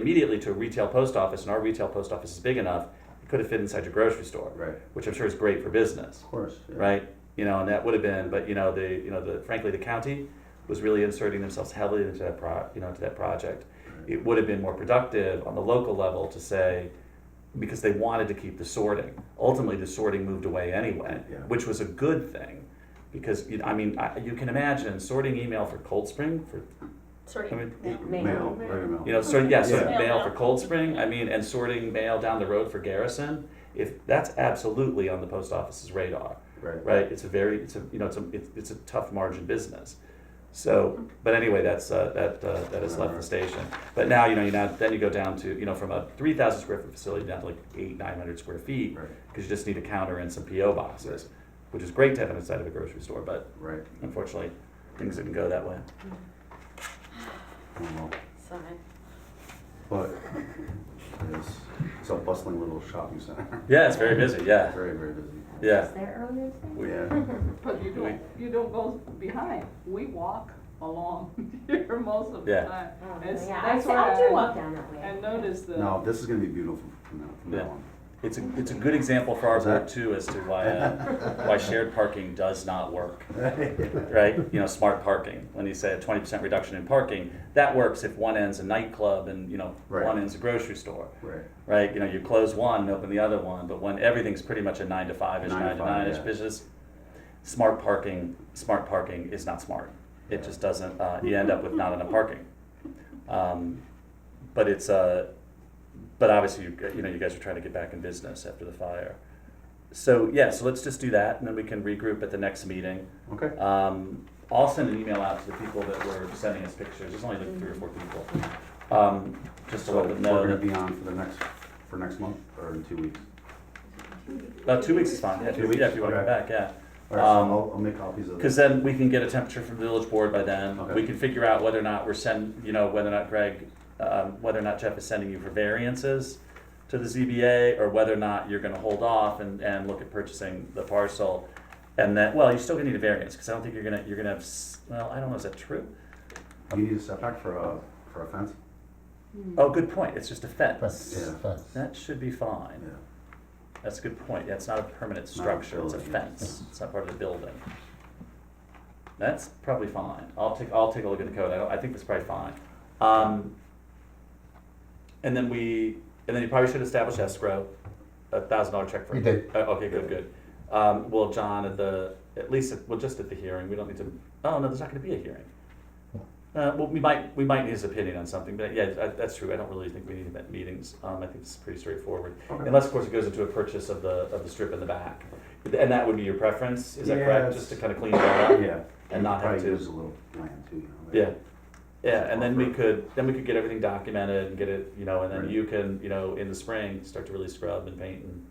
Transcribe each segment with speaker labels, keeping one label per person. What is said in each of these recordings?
Speaker 1: immediately to a retail post office, and our retail post office is big enough, it could have fit inside your grocery store,
Speaker 2: Right.
Speaker 1: which I'm sure is great for business,
Speaker 2: Of course. yeah.
Speaker 1: right? You know, and that would have been, but you know, the you know the frankly the county was really inserting themselves heavily into that pro, you know into that project. It would have been more productive on the local level to say, because they wanted to keep the sorting. Ultimately, the sorting moved away anyway,
Speaker 2: Yeah.
Speaker 1: which was a good thing, because you know, I mean I, you can imagine sorting email for Cold Spring for
Speaker 3: Sorry.
Speaker 1: I mean,
Speaker 3: no.
Speaker 2: Mail,
Speaker 4: Mail.
Speaker 2: very mail.
Speaker 1: you know, sorting yeah, sorting
Speaker 3: Yeah.
Speaker 1: mail for Cold Spring. I mean, and sorting mail down the road for Garrison. If that's absolutely on the post office's radar,
Speaker 2: Right.
Speaker 1: right? It's a very, it's a you know, it's a it's, it's a tough margin business. So, but anyway, that's uh, that uh, that has left the station. But now you know you now then you go down to you know from a three thousand square foot facility down to like eight nine hundred square feet
Speaker 2: Right.
Speaker 1: because you just need a counter and some PO boxes, which is great to have inside of a grocery store. But
Speaker 2: Right.
Speaker 1: unfortunately, things didn't go that way.
Speaker 2: Well,
Speaker 3: Sorry.
Speaker 2: But it's, it's a bustling little shopping center.
Speaker 1: Yeah, it's very busy. Yeah,
Speaker 2: Very, very busy.
Speaker 1: yeah.
Speaker 4: there earlier today?
Speaker 1: We-
Speaker 2: Yeah.
Speaker 5: But you don't, you don't go behind. We walk along here most of the
Speaker 1: Yeah.
Speaker 5: time.
Speaker 4: Oh,
Speaker 5: It's-
Speaker 4: yeah, I,
Speaker 5: that's
Speaker 4: see- I
Speaker 5: why
Speaker 4: do walk down that way.
Speaker 5: I noticed the.
Speaker 2: No, this is gonna be beautiful from now, from
Speaker 1: Yeah.
Speaker 2: now on.
Speaker 1: It's a, it's a good example for our
Speaker 2: What's that?
Speaker 1: board too as to why, uh, why shared parking does not work, right? You know, smart parking, when you say a twenty percent reduction in parking, that works if one end's a nightclub and, you know,
Speaker 2: Right.
Speaker 1: one end's a grocery store,
Speaker 2: Right.
Speaker 1: right? You know, you close one and open the other one, but when everything's pretty much a nine to five-ish,
Speaker 2: Nine to
Speaker 1: nine to
Speaker 2: five,
Speaker 1: nine-ish
Speaker 2: yeah.
Speaker 1: business, smart parking, smart parking is not smart. It just doesn't, uh, you end up with not enough parking. Um, But it's, uh, but obviously, you, you know, you guys are trying to get back in business after the fire. So, yeah, so let's just do that, and then we can regroup at the next meeting.
Speaker 2: Okay.
Speaker 1: Um, I'll send an email out to the people that were sending us pictures, there's only like three or four people. Um, Just to
Speaker 2: So
Speaker 1: let
Speaker 2: we're
Speaker 1: them know,
Speaker 2: gonna
Speaker 1: that-
Speaker 2: be on for the next, for next month or in two weeks?
Speaker 1: about two weeks is fine, yeah,
Speaker 2: Two
Speaker 1: two-
Speaker 2: weeks,
Speaker 1: yeah, if you want to come
Speaker 2: okay.
Speaker 1: back, yeah.
Speaker 2: All right,
Speaker 1: Um,
Speaker 2: so I'll, I'll make copies of
Speaker 1: Because
Speaker 2: this.
Speaker 1: then we can get a temperature from the village board by then. We
Speaker 2: Okay.
Speaker 1: can figure out whether or not we're send, you know, whether or not Greg, um, whether or not Jeff is sending you for variances to the ZBA, or whether or not you're gonna hold off and, and look at purchasing the parcel. And that, well, you're still gonna need a variance, because I don't think you're gonna, you're gonna have, s- well, I don't know, is that true?
Speaker 2: You need a setback for a, for a fence?
Speaker 5: Hmm.
Speaker 1: Oh, good point, it's just a fence.
Speaker 2: Yeah.
Speaker 6: fence.
Speaker 1: That should be
Speaker 2: Yeah.
Speaker 1: fine. That's a good point, yeah, it's not a permanent
Speaker 2: Not a
Speaker 1: structure, it's a
Speaker 2: building, yeah.
Speaker 1: fence, it's not part of the building. That's probably fine, I'll take, I'll take a look at the code, I, don't- I think that's probably fine. Um, and then we, and then you probably should establish escrow, a thousand dollar check for.
Speaker 6: We did.
Speaker 1: Uh, Okay, good, good. Um, well, John, at the, at least, at- well, just at the hearing, we don't need to, oh, no, there's not gonna be a hearing. Uh, well, we might, we might need his opinion on something, but yeah, I- that's true, I don't really think we need met- meetings, um, I think it's pretty straightforward.
Speaker 2: Okay.
Speaker 1: Unless, of course, it goes into a purchase of the, of the strip in the back, and that would be your preference, is that correct?
Speaker 2: Yes.
Speaker 1: Just to kind of clean that up?
Speaker 2: Yeah.
Speaker 1: And not have
Speaker 2: Probably
Speaker 1: to-
Speaker 2: use a little land too, you know?
Speaker 1: Yeah, yeah, and then we could, then we could get everything documented and get it, you know, and then
Speaker 2: Right.
Speaker 1: you can, you know, in the spring, start to really scrub and paint and,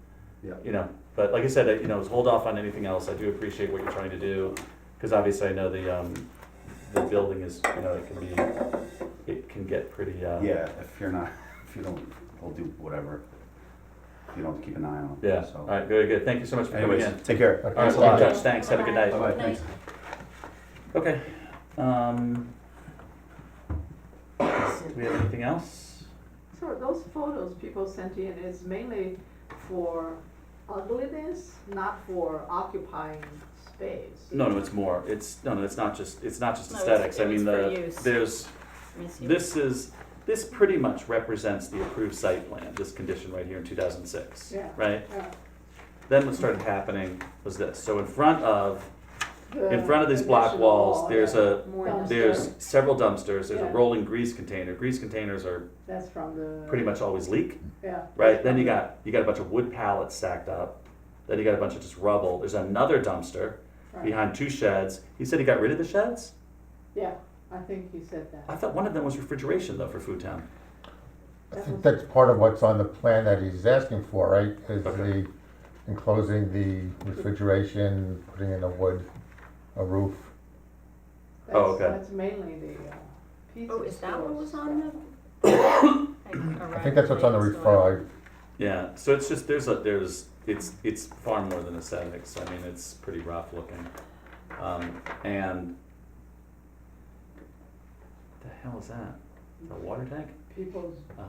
Speaker 2: Yeah.
Speaker 1: you know. But like I said, I- you know, hold off on anything else, I do appreciate what you're trying to do, because obviously I know the, um, the building is, you know, it can be, it can get pretty, uh,
Speaker 2: Yeah, if you're not, if you don't, we'll do whatever. You don't keep an eye on it,
Speaker 1: yeah,
Speaker 2: so.
Speaker 1: all right, very good, thank you so much for coming in.
Speaker 2: Anyways, take care.
Speaker 1: All right,
Speaker 2: Thanks a
Speaker 1: we'll be in
Speaker 2: lot.
Speaker 1: touch, thanks, have a good night.
Speaker 2: Bye-bye, thanks.
Speaker 1: Okay, um, do we have anything else?
Speaker 5: So those photos people sent in is mainly for ugliness, not for occupying space.
Speaker 1: No, no, it's more. It's no, no. It's not just. It's not just
Speaker 3: No, it's-
Speaker 1: aesthetics. I
Speaker 3: it was
Speaker 1: mean,
Speaker 3: for
Speaker 1: the
Speaker 3: use.
Speaker 1: there's
Speaker 3: Misuse.
Speaker 1: this is this pretty much represents the approved site plan. This condition right here in 2006.
Speaker 5: Yeah.
Speaker 1: Right.
Speaker 5: Uh,
Speaker 1: Then what started happening was this. So in front of
Speaker 5: the
Speaker 1: in front of these block
Speaker 5: additional
Speaker 1: walls,
Speaker 5: wall,
Speaker 1: there's
Speaker 5: yeah.
Speaker 1: a
Speaker 4: More
Speaker 5: Dumpster.
Speaker 1: there's several dumpsters. There's a
Speaker 5: Yeah.
Speaker 1: rolling grease container. Grease containers are
Speaker 5: That's from the.
Speaker 1: pretty much always leak.
Speaker 5: Yeah.
Speaker 1: Right. Then you got you got a bunch of wood pallets stacked up. Then you got a bunch of just rubble. There's another dumpster
Speaker 5: Right.
Speaker 1: behind two sheds. He said he got rid of the sheds.
Speaker 5: Yeah, I think you said that.
Speaker 1: I thought one of them was refrigeration though for Food Town.
Speaker 6: I think that's part of what's on the plan that he's asking for, right? Is
Speaker 1: Okay.
Speaker 6: the enclosing the refrigeration, putting in a wood, a roof.
Speaker 5: That's-
Speaker 1: Oh, okay.
Speaker 5: That's mainly the uh, pizza.
Speaker 3: Oh, is that what was on
Speaker 5: the?
Speaker 3: the?
Speaker 6: I think that's what's on the referral.
Speaker 1: Yeah, so it's just there's a there's it's it's far more than aesthetics. I mean, it's pretty rough looking, um, and the hell is that? A water tank?
Speaker 5: People's